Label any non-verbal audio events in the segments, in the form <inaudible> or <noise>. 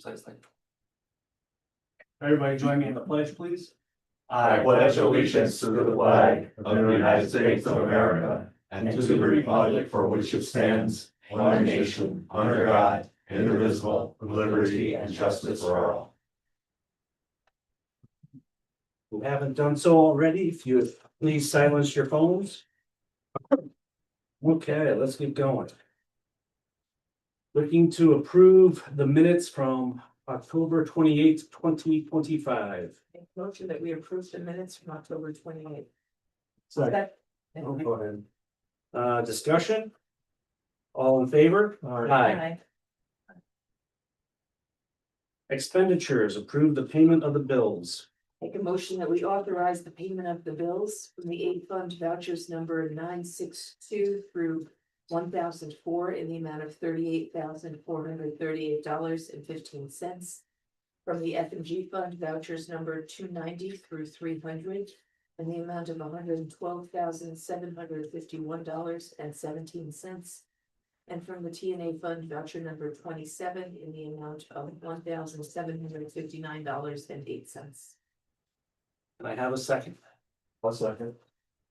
So it's like- Everybody join me in the pledge, please. I pledge allegiance to the flag of the United States of America and to the republic for which it stands, one nation, under God, indivisible, with liberty and justice for all. Who haven't done so already, if you please silence your phones. Okay, let's get going. Looking to approve the minutes from October twenty eighth, twenty twenty five. Make motion that we approve the minutes from October twenty eighth. Oh, Go ahead. Uh, discussion? All in favor? Aye. Expenditures, approve the payment of the bills. Make a motion that we authorize the payment of the bills from the aid fund vouchers number nine six two through one thousand four in the amount of thirty eight thousand four hundred thirty eight dollars and fifteen cents. From the F and G fund vouchers number two ninety through three hundred in the amount of hundred and twelve thousand seven hundred fifty one dollars and seventeen cents. And from the T and A fund voucher number twenty seven in the amount of one thousand seven hundred fifty nine dollars and eight cents. Can I have a second? One second.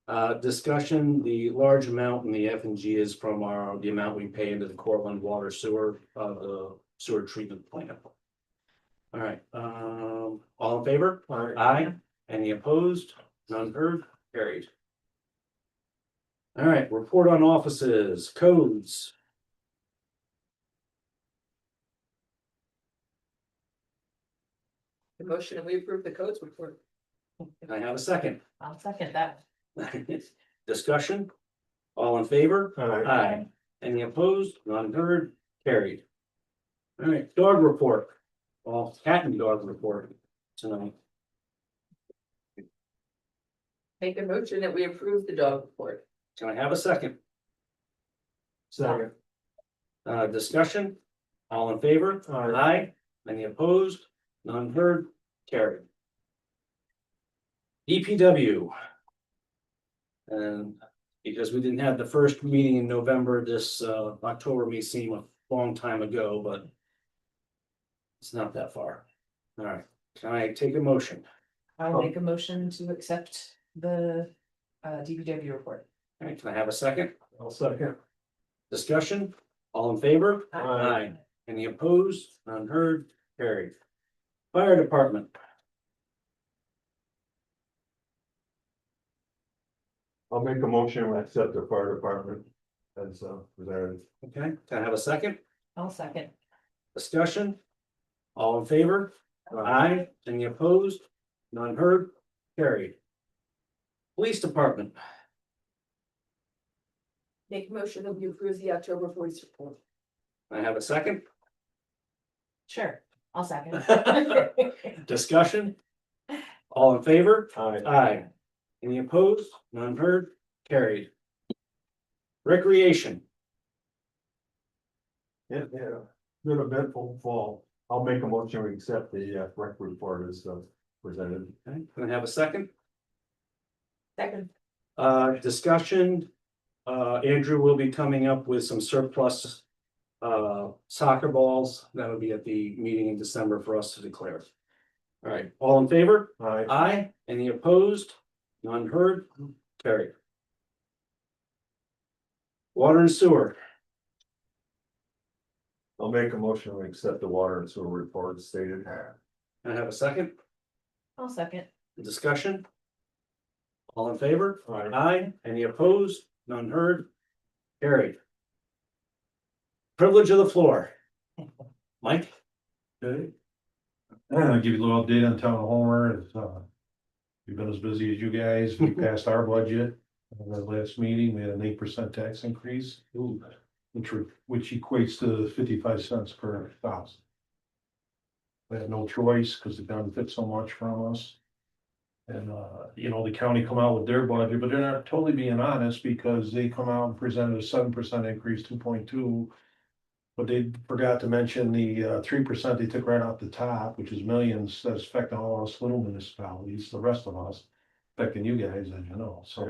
Uh, discussion, the large amount in the F and G is from our, the amount we pay into the Cortland Water Sewer, uh, the sewer treatment plant. All right, um, all in favor? Aye. Any opposed? None heard? Carried. All right, report on offices, codes. The motion that we approve the codes report. Can I have a second? <laughs> I'll second that. Discussion? All in favor? Aye. Any opposed? None heard? Carried. All right, dog report. Well, cat and dog report tonight. Make a motion that we approve the dog report. Can I have a second? Second. Uh, discussion? All in favor? Aye. Any opposed? None heard? Carried. EPW. And because we didn't have the first meeting in November, this uh October may seem a long time ago, but. It's not that far. All right, can I take a motion? I'll make a motion to accept the uh DPW report. All right, can I have a second? One second. Discussion? All in favor? Aye. Aye. Any opposed? None heard? Carried. Fire department, I'll make a motion to accept the fire department as uh presented. okay, can I have a second? I'll second. Discussion? All in favor? Aye. Any opposed? None heard? Carried. Police department, Make a motion that we approve the October police report. I have a second. Sure, I'll <laughs> second. Discussion? All in favor? Aye. Aye. Any opposed? None heard? Carried. Recreation, Yeah, yeah, good eventful fall. I'll make a motion to accept the uh rec report as uh presented. okay, can I have a second? Second. Uh, discussion, uh, Andrew will be coming up with some surplus. Uh, soccer balls, that would be at the meeting in December for us to declare. All right, all in favor? Aye. Aye, any opposed? None heard, carried. Water and sewer, I'll make a motion to accept the water and sewer report as stated. Can I have a second, I'll second. discussion. All in favor? Aye. Aye, any opposed? None heard, carried. Privilege of the floor. Mike? Okay. I'll give you a little update on town Homer, it's, uh. We've been as busy as you guys, we passed our budget, in the last meeting, we had an eight percent tax increase. Which, re- which equates to fifty-five cents per thousand. We had no choice, because the town took so much from us. And, uh, you know, the county come out with their budget, but they're not totally being honest, because they come out and presented a seven percent increase, two point two. But they forgot to mention the uh, three percent they took right off the top, which is millions that's affecting all us little municipalities, the rest of us. Affecting you guys, as you know, so.